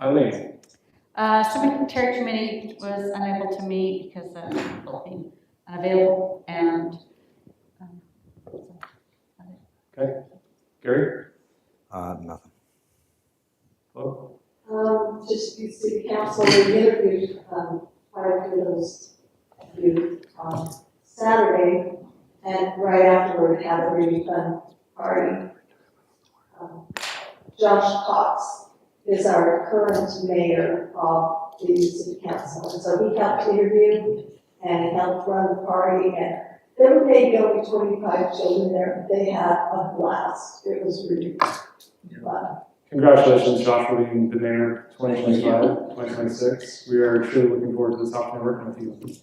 Eileen, Uh, cemetery committee was unable to meet because of people being unavailable and, um, so, Gary, Uh, nothing. Flo, Um, just the city council, we interviewed, um, prior to those, you, on Saturday, and right afterward had a really fun party. Um, Josh Cox is our current mayor of the city council, and so he helped interview and he helped run the party, and there were maybe only twenty-five children there, they had a blast, it was really fun. congratulations, Josh, for being the mayor 2025, 2026. We are truly looking forward to this opportunity working with you.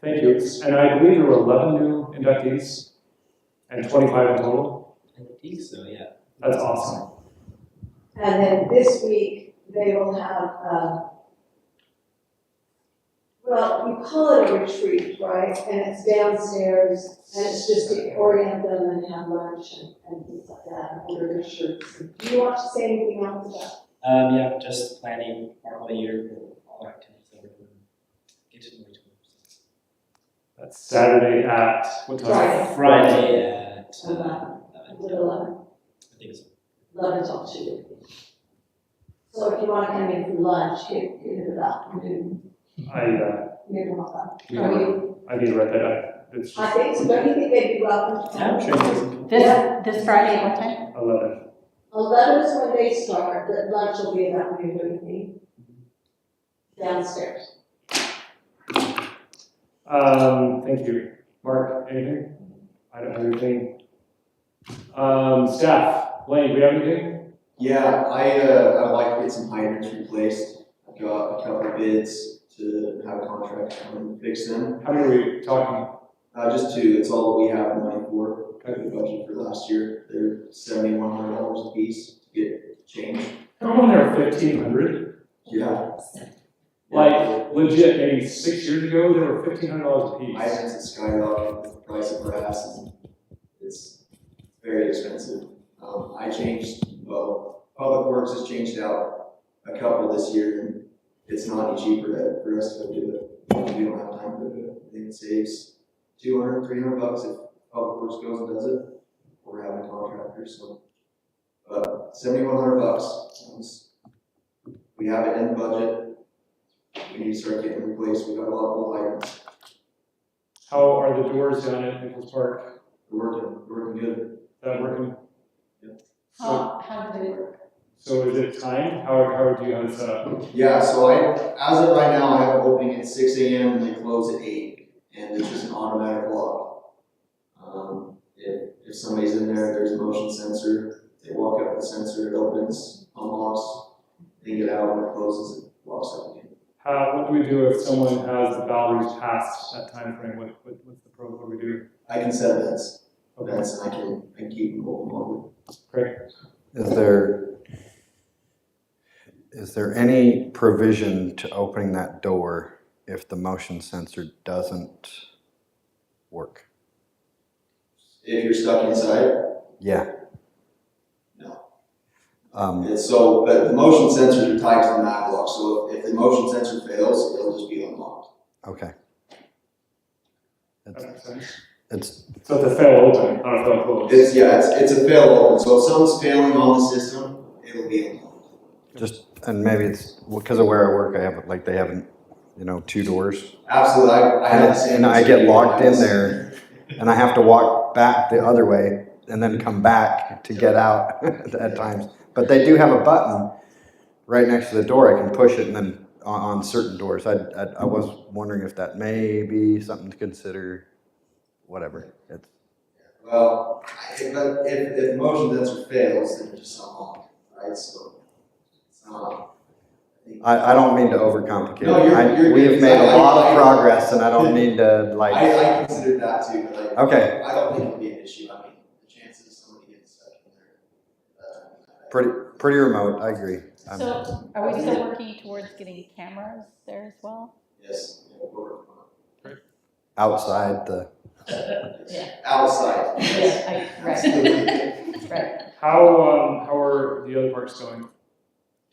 Thank you. And I believe there were 11 new inductees and 25 in total. I think so, yeah. That's awesome. And then this week, they will have, um, well, you call it a retreat, right? And it's downstairs, and it's just to orient them and have lunch and, and things like that, and order their shirts. Do you want to say anything else about Um, yeah, just planning our whole year, for all our activities that we're doing. Get to know each other. That's Saturday at what time? Friday. Friday at, uh, that? uh, Little love, I think it's, love is all too good. So if you want to come in for lunch, here, here about noon, I, uh, noon or about. Yeah. I need to write that down. It's I just think, so don't you think they'd be welcome to I'm come? sure it's. This, this Friday, what time? 11. Eleven is when they start, but lunch will be in that room with me. Downstairs. Um, thank you. Mark, anything? I don't have anything. Um, staff, Blaine, do we have anything? Yeah, I, uh, I'd like to get some hydrants replaced. I've got a couple of bids to have a contract come and fix them. How many are we talking? Uh, just two, that's all we have money for, cut the budget for last year. They're seventy-one hundred dollars a piece to get changed. Come on there, 1,500. Yeah. Like, legit, maybe six years ago, they were $1,500 a piece. Hydrants have skyrocketed, with the price of brass, and it's very expensive. Um, I changed, well, Public Works has changed out a couple this year, and it's not any cheaper to- for us to go do it. We don't have time to do it. I think it saves two hundred, three hundred bucks if Public Works goes and does it, or having contractors, so. But seventy-one hundred bucks, it's- we have it in the budget. We need to start getting replaced, we got a lot of old items. How are the doors down at Nichols Park? We're Working, we're working good. Is that working? So, How, how did it work? so is it timed? How, how do you have it set up? Yeah, so I, as of right now, I have an opening at six AM and they close at eight, and it's just an automatic lock. Um, if, if somebody's in there, there's a motion sensor, they walk up to the sensor, it opens, unlocks, they get out and it closes, it locks up again. How, what do we do if someone has the boundaries past that time frame? What, what, what's the pro, what do we do? I can set events, Okay, events, and I can, I can keep them open all week. Is there, is there any provision to opening that door if the motion sensor doesn't work? If you're stuck inside, Yeah. No. Um, it's so, but the motion sensors are tied to the mat lock, so if the motion sensor fails, it'll just be unlocked. okay. that It's, makes sense. it's, So it's a fail open, not a fail close. It's, yeah, it's, it's a fail open, so if something's failing on the system, it'll be unlocked. and maybe it's, because of where I work, I have, like, they have, you know, two doors. Absolutely, I, I had the same. And I get experience. locked in there and I have to walk back the other way and then come back to get out at times. But they do have a button right next to the door. I can push it and then on, on certain doors. I, I, I was wondering if that may be something to consider, whatever. It's, Well, I, if, if, if the motion sensor fails, then it's just unlocked, right, so, it's not. think- I, I don't mean to overcomplicate No, it. you're- I- you're We have good. made I- a I- lot I- of progress and I don't mean to like, I, I considered that too, but I. Okay. I don't think it'll be an issue, I mean, the chances of somebody getting stuck in there. uh, pretty, pretty remote. I agree. I'm- So are we still working towards getting cameras there as well? Yes, yeah, we're, Outside the, Yeah. outside, yes, Yeah, I- right, absolutely. right. How, um, how are the other parks going?